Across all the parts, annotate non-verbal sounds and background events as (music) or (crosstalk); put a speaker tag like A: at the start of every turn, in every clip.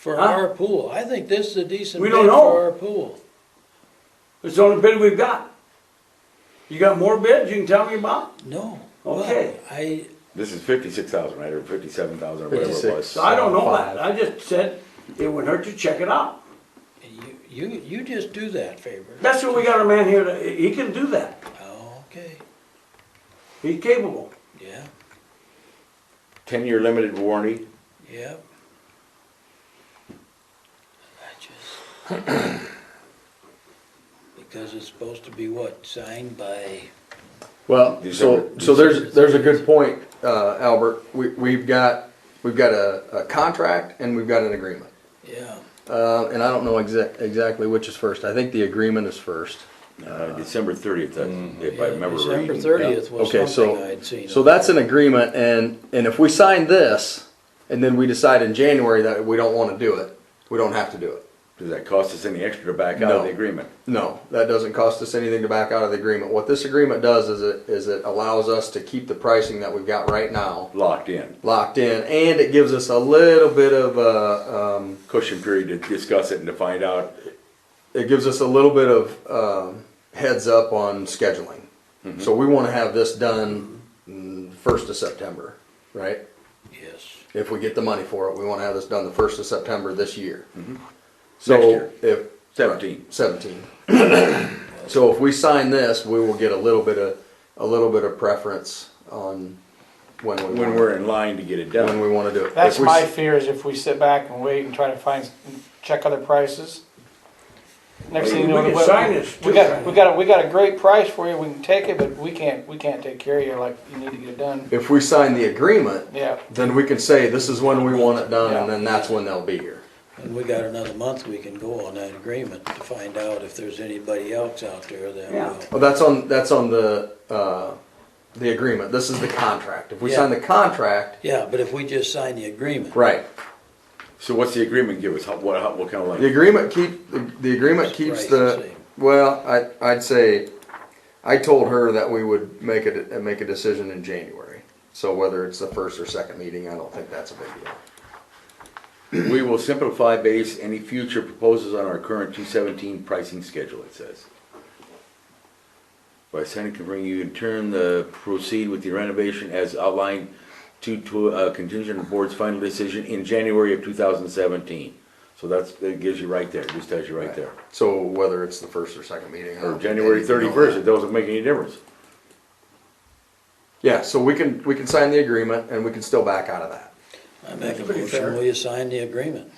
A: for
B: Huh?
A: our pool. I think this is a decent
B: We
A: bid
B: don't know.
A: for our pool.
B: It's the only bid we've got. You got more bids you can tell me about?
A: No.
B: Okay.
A: But I,
C: This is fifty-six thousand, right, or fifty-seven thousand, or whatever it
D: 56.
C: was.
B: So I don't know
D: Five.
B: that. I just said it would hurt to check it out.
A: you, you, you just do that favor.
B: That's what we got a man here, that- he can do that.
A: Okay,
B: He's capable.
A: yeah,
C: Ten-year limited warranty,
A: yeah. I just. (clears throat) Because it's supposed to be what, signed by,
D: Well, so,
C: December-
D: so there's, there's a good point, uh, Albert. We, we've got, we've got a, a contract and we've got an agreement.
A: yeah,
D: Uh, and I don't know exact, exactly which is first. I think the agreement is first. Ah.
C: uh, December thirtieth,
D: Mm.
C: if I
A: yeah,
C: remember
A: December
C: reading.
A: thirtieth was
D: Okay,
A: something
D: so,
A: I'd seen.
D: so that's an agreement and, and if we sign this and then we decide in January that we don't wanna do it, we don't have to do it.
C: Does that cost us any extra to back out of
D: No.
C: the agreement?
D: No, that doesn't cost us anything to back out of the agreement. What this agreement does is it, is it allows us to keep the pricing that we've got right now
C: Locked in.
D: locked in and it gives us a little bit of, uh, um,
C: Cushion period to discuss it and to find out,
D: it gives us a little bit of um, heads up on scheduling.
C: Mm-hmm.
D: So we want to have this done mm, first of September, right?
A: Yes,
D: If we get the money for it, we want to have this done the first of September this year.
C: Mm-hmm. Next
D: So
C: year.
D: if.
C: Seventeen.
D: Seventeen. (coughs) So if we sign this, we will get a little bit of, a little bit of preference on when we.
C: when
D: wanna-
C: we're in line to get it
D: When
C: done.
D: we want to do it.
E: That's
D: If we
E: my
D: s-
E: fear is if we sit back and wait and try to find, check other prices. Next thing you know.
B: We can
E: what-
B: sign this.
E: We got, we got, a- we got a great price for you, we can take it, but we can't, we can't take care of you like you need to get it done.
D: If we sign the agreement,
E: Yeah,
D: then we can say this is when we want it done and
E: Yeah.
D: then that's when they'll be here.
A: and we got another month we can go on that agreement to find out if there's anybody else out there that
B: Yeah.
A: will.
D: Well, that's on, that's on the, uh, the agreement. This is the contract. If we sign the contract,
A: Yeah, but if we just sign the agreement.
D: right.
C: So what's the agreement give us? How, what, how, what kind of length?
D: The agreement keep, the- the agreement keeps the,
A: Right,
D: well, I, I'd say, I told her that we would make a, make a decision in January. So whether it's the first or second meeting, I don't think that's a big deal.
C: We will simplify base any future proposals on our current two seventeen pricing schedule, it says. By Senate can bring you in turn the proceed with the renovation as outlined to, to, uh, contingent on board's final decision in January of two thousand seventeen. So that's, that gives you right there, just tells you right there.
D: So whether it's the first or second meeting. I don't
C: Or
D: think
C: January
D: anything on
C: thirty-first,
D: that.
C: it doesn't make any difference.
D: Yeah, so we can, we can sign the agreement and we can still back out of that.
A: I make a
B: pretty fair.
A: motion, will you sign the agreement?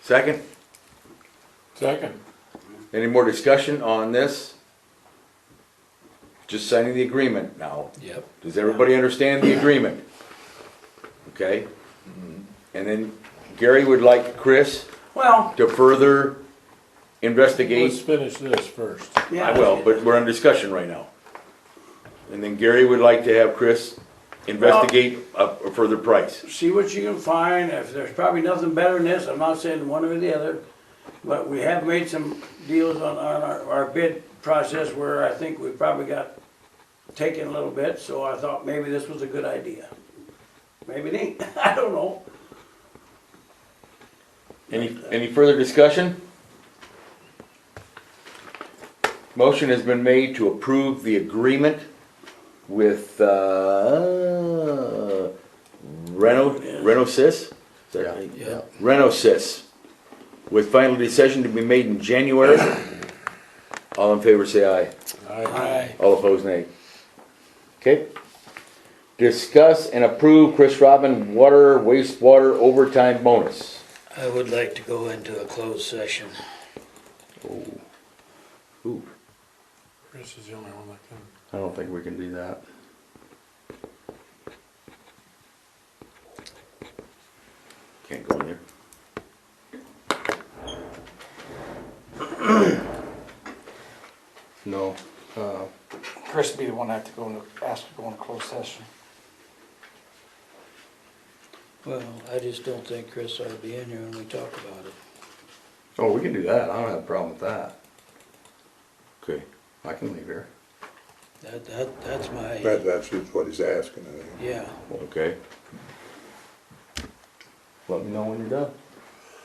C: Second,
B: Second.
C: any more discussion on this? Just signing the agreement now.
A: Yep.
C: Does everybody understand the agreement? Okay? And then Gary would like Chris
B: Well,
C: to further
F: Let's
C: investigate.
F: finish this first.
B: yeah.
C: I will, but we're in discussion right now. And then Gary would like to have Chris investigate a a further price.
B: see what you can find, if there's probably nothing better than this, I'm not saying one or the other, but we have made some deals on, on our, our bid process where I think we probably got taken a little bit, so I thought maybe this was a good idea. Maybe it ain't, (laughs) I don't know.
C: Any, any further discussion? Motion has been made to approve the agreement with, uh, Reno, Renosys? Is that right?
A: Yeah.
C: Renosys, with final decision to be made in January. All in favor, say aye.
B: Aye.
C: All opposed, nay. Okay. Discuss and approve Chris Robin water wastewater overtime bonus.
A: I would like to go into a closed session.
C: Ooh.
F: Chris is the only one that can.
D: I don't think we can do that.
C: Can't go in there.
D: No. Uh,
E: Chris would be the one I have to go and ask to go in a closed session.
A: Well, I just don't think Chris ought to be in here when we talk about it.
D: Oh, we can do that. I don't have a problem with that.
C: Okay.
D: I can leave here.
A: That, that, that's my,
G: That, that's just what he's asking, I think.
A: yeah.
C: Okay. Let me know when you're done.